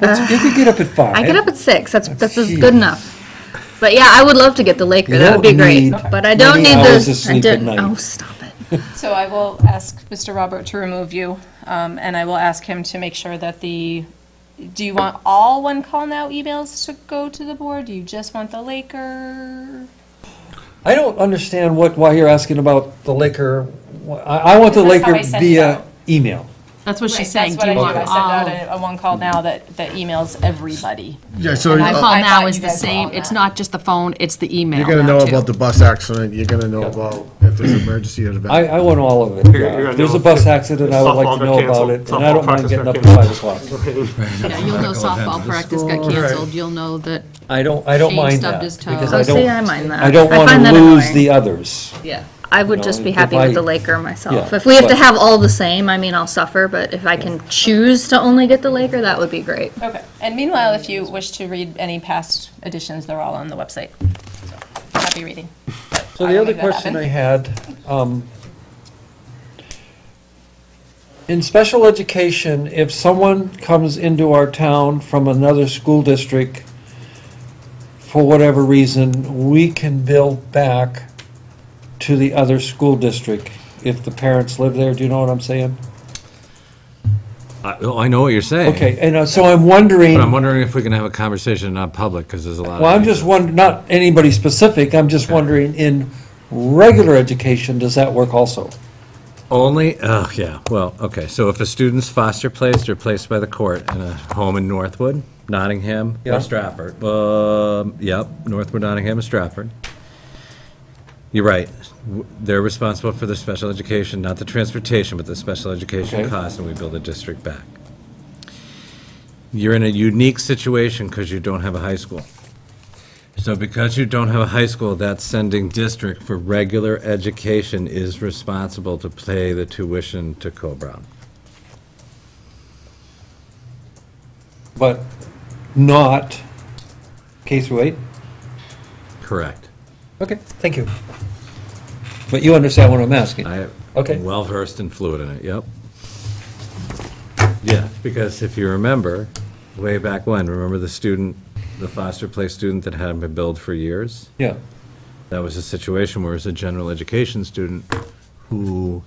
That's, you could get up at five. I get up at six. That's that's, That's good huge. enough. But yeah, I would love to get the Laker. You That would be don't great. need But I don't many need the. hours of sleep I at don't- night. Oh, stop it. So I will ask Mr. Robert to remove you, um, and I will ask him to make sure that the, do you want all one call now emails to go to the board? Do you just want the Laker? I don't understand what, why you're asking about the Laker. I, I want the Because that's how Laker I sent it via out. email. That's what she's Right, saying. That's what Do I you do. I want send out a, a one call now that, that emails everybody. Yeah, so I My uh, call thought now you is the guys were same. on It's that. not just the phone, it's the email you're gonna now, know too. about the bus accident, you're gonna know about if there's an emergency or I, event. I want all of You're it. gonna- you're yeah. gonna There's know a bus if- accident, if I would like softball got to know about canceled, it, and I softball don't mind practice getting got up at five o'clock. Yeah, you'll know softball practice got canceled, you'll know that, I don't, I don't Shane mind stubbed that. his toe. because Oh, Oh, I see, I don't, mind that. I don't want find to that lose annoying. the others. yeah. I would you just know, be if happy with I- the Laker myself. Yeah, If we have to but- have all the same, I mean, I'll suffer. But if I can choose to only get the Laker, that would be great. Okay. And meanwhile, if you wish to read any past editions, they're all on the website. So, Happy reading. So I the will other make that question I happen. had, um, in special education, if someone comes into our town from another school district, for whatever reason, we can bill back to the other school district if the parents live there, do you know what I'm saying? I, oh, I know what you're saying. Okay, and uh, so I'm wondering, But I'm wondering if we can have a conversation not public, because there's a lot of. well, I'm things just that- wondering, not anybody specific, I'm just wondering, in regular education, does that work also? Only, oh, yeah, well, okay, so if a student's foster placed or placed by the court in a home in Northwood, Nottingham, Yeah. or Stratford, um, yep, Northwood, Nottingham, and Stratford. You're right, W- they're responsible for the special education, not the transportation, but the special education Okay. costs, and we build the district back. You're in a unique situation because you don't have a high school. So because you don't have a high school, that sending district for regular education is responsible to pay the tuition to Co-Brown. but not K through eight? Correct. Okay, thank you. But you understand what I'm asking? I Okay. am well versed and fluid in it, yep. Yeah, because if you remember, way back when, remember the student, the foster place student that hadn't been billed for years? Yeah, that was a situation where it was a general education student who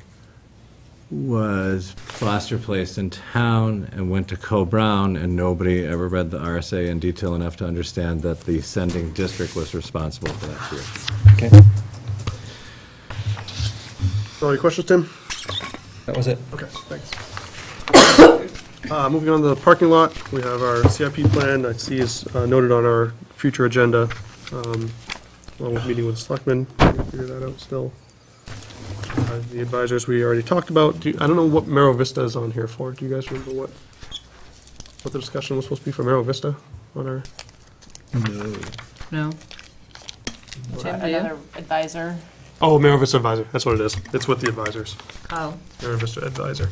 was foster placed in town and went to Co-Brown, and nobody ever read the RSA in detail enough to understand that the sending district was responsible for that year. okay, So any questions, Tim? that was it. Okay, thanks. Uh, Moving on to the parking lot, we have our CIP plan, I see is uh, noted on our future agenda, um, along with meeting with selectmen, We'll figure that out still. Uh, The advisors we already talked about, Do- I don't know what Mero Vista is on here for, do you guys remember what, what the discussion was supposed to be for Mero Vista on our? Jim, No? do you? another advisor. Oh, Mero Vista advisor, that's what it is, it's with the advisors, Oh. Mero Vista advisor.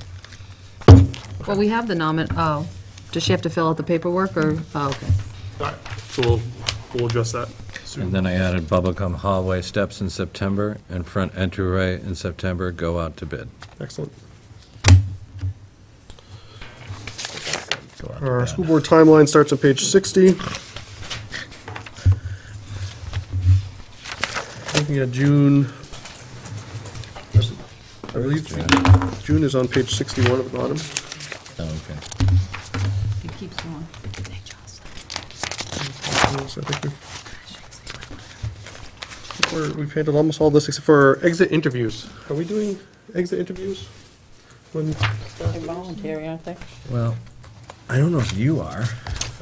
Well, we have the nomin, oh, does she have to fill out the paperwork, or, oh, okay. All right, so we'll, we'll address that soon. And then I added bubblegum hallway steps in September, and front entryway in September, go out to bid. Excellent. Our school board timeline starts on page 60. Looking at June, I believe June is on page 61 at the bottom. Oh, okay. It keeps going. Yes, I think we- we're- We've handled almost all this except for exit interviews. Are we doing exit interviews? When, Voluntary, aren't they? Well, I don't know if you are.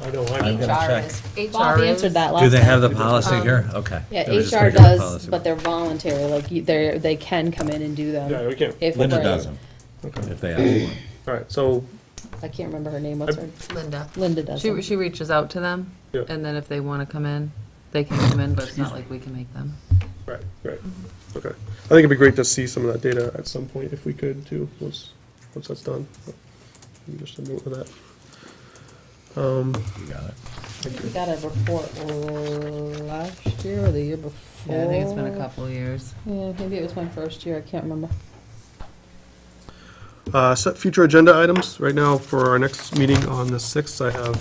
I know, I'm gonna HR check. Um, is. Bob answered that last Do they time. have the policy here? Okay. Yeah, They were just HR gonna get the does, policy. but they're voluntary, like, you- they're, they can come in and do them. Yeah, we can't. If Linda we're- doesn't, Okay. if they ask one. All right, so I can't remember her name, what's her, Linda. Linda She, doesn't. she reaches out to them, Yeah. and then if they want to come in, they can come in, but it's not like we can make them. Right, right, okay. I think it'd be great to see some of that data at some point if we could too, once, once that's done. Just a note of that. Um, We got a report last year or the year before. Yeah, I think it's been a couple of years. Yeah, maybe it was my first year, I can't remember. uh, set future agenda items. Right now, for our next meeting on the sixth, I have